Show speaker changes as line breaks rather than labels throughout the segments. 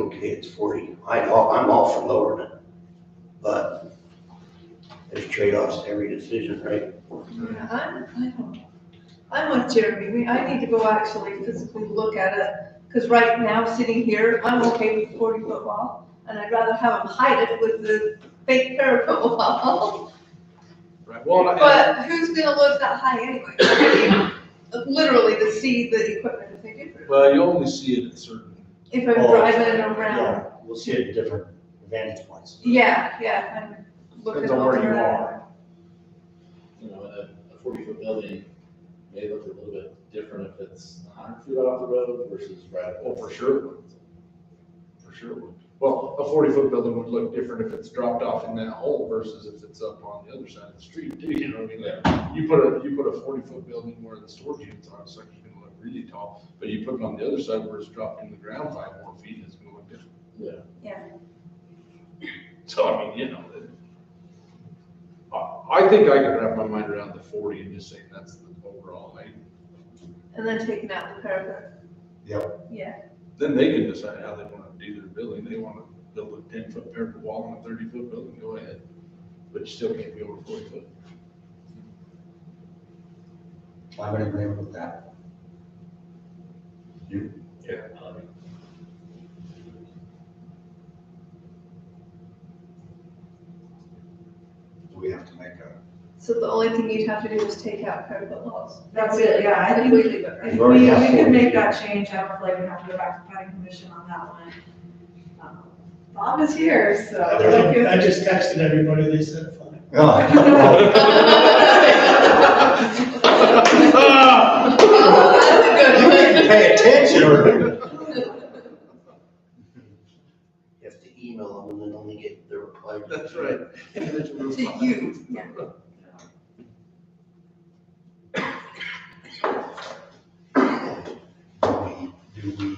okay, it's forty. I, all- I'm all for lowering it. But there's trade-offs to every decision, right?
Yeah, I'm, I don't, I'm with Jeremy, we, I need to go actually physically look at it, because right now, sitting here, I'm okay with forty foot wall, and I'd rather have them hide it with the fake parapet wall.
Right, well, and I-
But who's gonna live that high anyway? I mean, Literally to see the equipment if they do.
well, you only see it at certain,
If I'm driving around,
Yeah, We'll see it at different vantage points.
yeah, yeah, I'm looking
Depends on where
over
you
that.
are.
you know, a, a forty foot building may look a little bit different if it's hundred feet off the road versus right.
Oh, for sure. it would. For sure. it would. Well, a forty foot building would look different if it's dropped off in that hole versus if it's up on the other side of the street too, you know what I mean? Like, You put a, you put a forty foot building where the storage units are, it's like you're gonna look really tall, but you put it on the other side where it's dropped in the ground five more feet, it's gonna look different.
Yeah.
Yeah.
So I mean, you know, it- I, I think I could wrap my mind around the forty and just say that's the overall, like,
And then taking out the parapet.
Yep.
Yeah,
then they can decide how they wanna do their building, they wanna build a ten foot parapet wall and a thirty foot building, go ahead. But you still can't be over forty foot.
I'm in agreement with that.
Do we have to make a,
so the only thing you'd have to do is take out parapet walls.
That's it, yeah, I think we,
Completely, but
if
We've already
we,
got
we
four.
could make that change, I don't feel like we have to go back to planning commission on that one. Um, Bob is here, so. like
I
if-
just texted everybody, they said fine.
Oh, You didn't pay attention. You have to email them and then only get the reply.
that's right.
To you, yeah.
do we, do we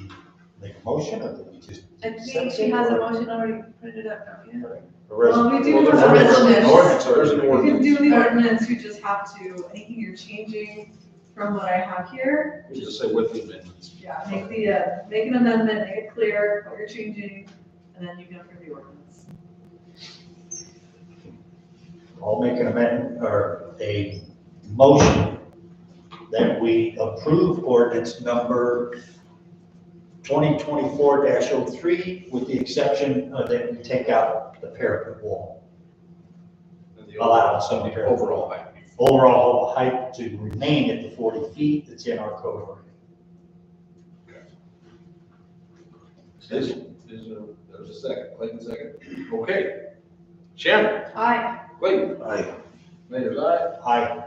make a motion or do we just?
I think she has a motion already printed up, don't you?
Well, we do
Well,
have a
there's an
resolution,
Ordinance, there's an
you
ordinance.
can do the ordinance, you just have to, anything you're changing from what I have here,
We Just say with the amendments.
yeah, make the, uh, make an amendment, make it clear what you're changing, and then you can approve the ordinance.
I'll make an amendment or a motion that we approve ordinance number twenty twenty-four 3 with the exception of that we take out the parapet wall.
And the
Allow some
overall-
parapet.
Overall height.
Overall height to remain at the forty feet that's in our code already.
Is, is, there- there's a second, Clayton second. Okay. Shannon,
Aye.
Clayton,
Aye.
Mayor's eye.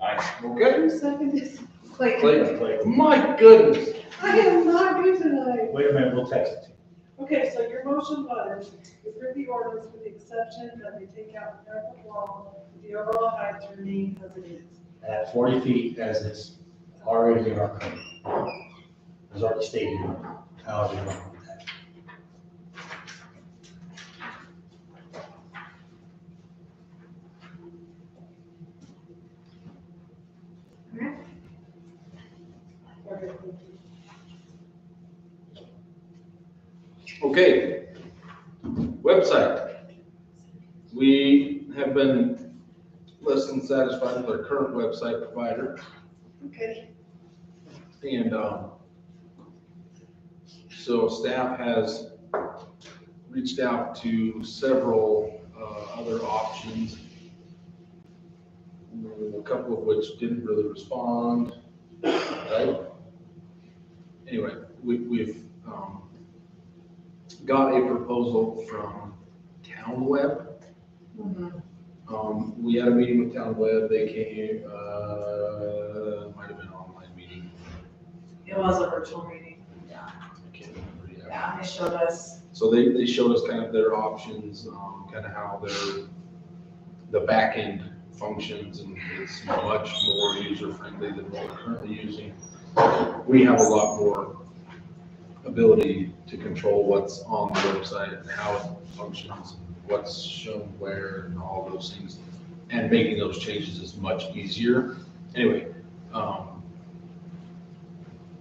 Aye.
Okay.
Who seconded?
Clayton.
Clayton,
Wait
my goodness.
I am not good tonight.
a minute, we'll text it to you.
Okay, so your motion was, approve the ordinance with the exception that we take out the parapet wall, the overall height to remain as it is.
at forty feet as it's already in our code. As already stated, how do you want with that?
Okay, thank you.
Okay. Website. We have been less than satisfied with our current website provider
Okay,
and, um, so staff has reached out to several, uh, other options. A couple of which didn't really respond, right? Anyway, we, we've, um, got a proposal from Town Web. Um, we had a meeting with Town Web, they came, uh, might have been an online meeting,
It was a virtual meeting, yeah,
I can't remember yet.
yeah, and they showed us,
So they, they showed us kind of their options, um, kind of how their, the backend functions and it's much more user friendly than what we're currently using. We have a lot more ability to control what's on the website and how it functions, what's shown where and all those things. And making those changes is much easier. Anyway, um,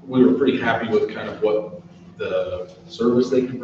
we were pretty happy with kind of what the service they can provide